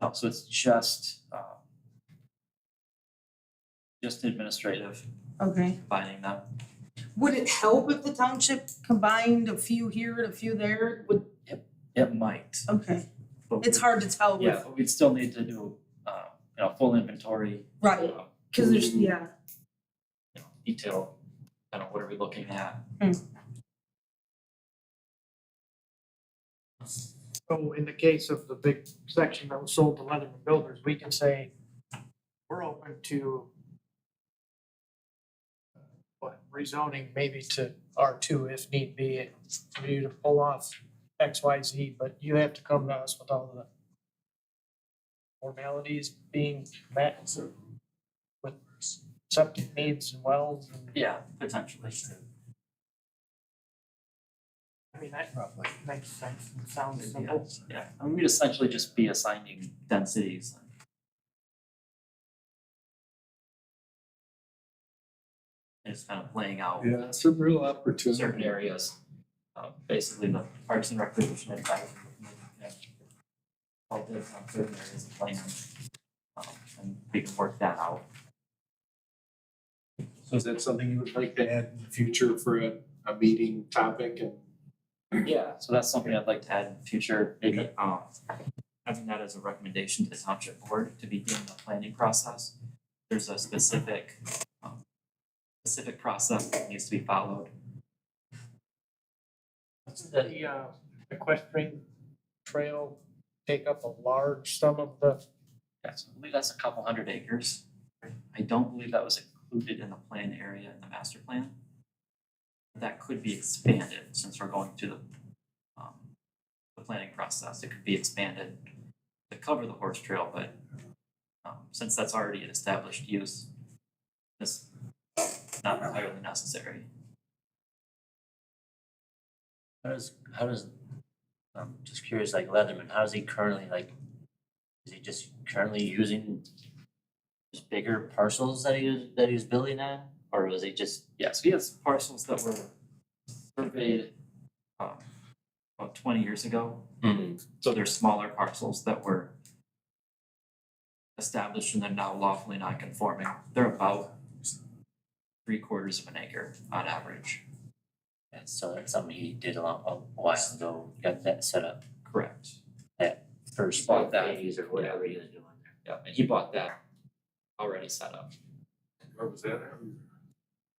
Uh, So it's just, um, just administrative Okay. combining them. Would it help if the township combined a few here and a few there? Would, It might. okay, but we- it's hard to tell Yeah, with, but we'd still need to do, um, you know, full inventory, right, um, cause there's, yeah, you know, detail, kind of what are we looking at? So in the case of the big section that was sold to Leatherman Builders, we can say, we're open to uh, what, rezoning maybe to R two if need be, for you to pull off X, Y, Z, but you have to come to us with all the formalities being met with septic needs and wells and. Yeah, potentially. I mean, that makes sense, and sounds simple. Yeah, and we'd essentially just be assigning densities. It's kind of laying out Yeah, it's a real certain opportunity. areas, uh, basically the Parks and Recreation Advisory Committee, yeah. All this on certain areas of land, um, and we can work that out. So is that something you would like to add in the future for a, a meeting topic and? Yeah. So that's something I'd like to add in the future, maybe, um, having that as a recommendation to the township board to begin the planning process. There's a specific, um, specific process that needs to be followed. The- The uh, equestrian trail take up a large sum of the, Yes, I believe that's a couple hundred acres. I don't believe that was included in the plan area in the master plan. That could be expanded since we're going through the, um, the planning process. It could be expanded to cover the horse trail, but, um, since that's already an established use, it's not entirely necessary. How does, how does, I'm just curious, like Leatherman, how's he currently, like, is he just currently using just bigger parcels that he was, that he was building on? Or was he just, Yes, we have parcels that were surveyed, um, about twenty years ago. Hmm. So they're smaller parcels that were established and they're now lawfully non-conforming. They're about three quarters of an acre on average. Yeah, so that's something he did a long, a while ago, got that set up Correct. first Bought that. phase or whatever he was doing there. Yeah, and he bought that already set up. Where was that?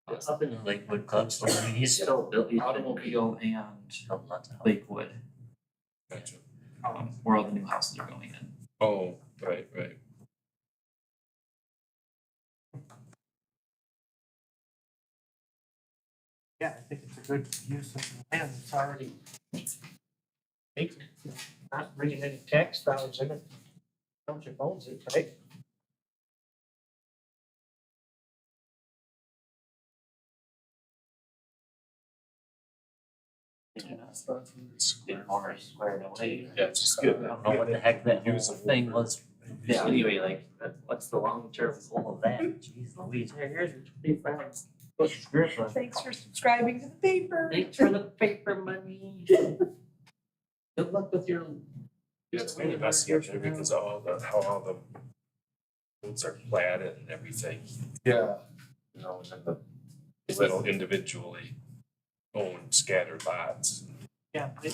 It's Up in the Lakewood Club store, I mean, he's still built, he's been Automobile and built lots of Lakewood, Gotcha. um, where all the new houses are going in. Oh, right, right. yeah, I think it's a good use of the land, it's already vacant, not bringing any tax dollars in it. Township owns it, right? big farms squared away. Yeah, it's just I don't know what the heck that whole thing was, Yeah. anyway, like, that- what's the long term goal of that? Jeez Louise, here, here's your three friends. What's your grandpa? thanks for subscribing to the paper. Thanks for the paper money. Good luck with your. Yeah, it's been investigated because of all the, how all the roads are platted and everything, Yeah, you know, and then the little individually owned scattered lots. Yeah, they,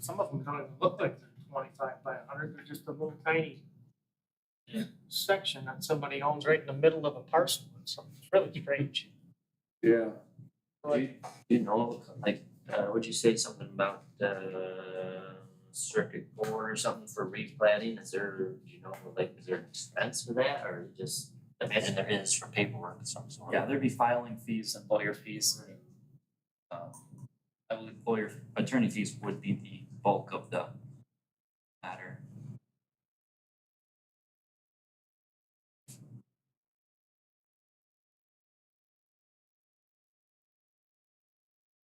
some of them don't even look like they're twenty-five by hundred, they're just a little tiny section that somebody owns right in the middle of a parcel, and something's really strange. yeah. Like, You know, like, uh, would you say something about, uh, circuit board or something for replating? Is there, you know, like, is there an expense for that or just? I Imagine there is for paperwork of some sort. Yeah, there'd be filing fees and lawyer fees. Um, I believe lawyer, attorney fees would be the bulk of the matter.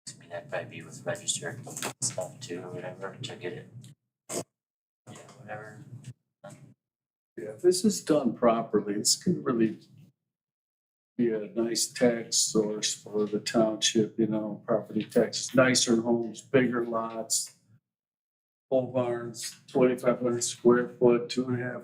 I mean, that might be with registered stuff too, or whatever, to get it. Yeah, whatever. Yeah, if this is done properly, this could really be a nice tax source for the township, you know, property taxes, nicer homes, bigger lots. Pole barns, twenty-five hundred square foot, two and a half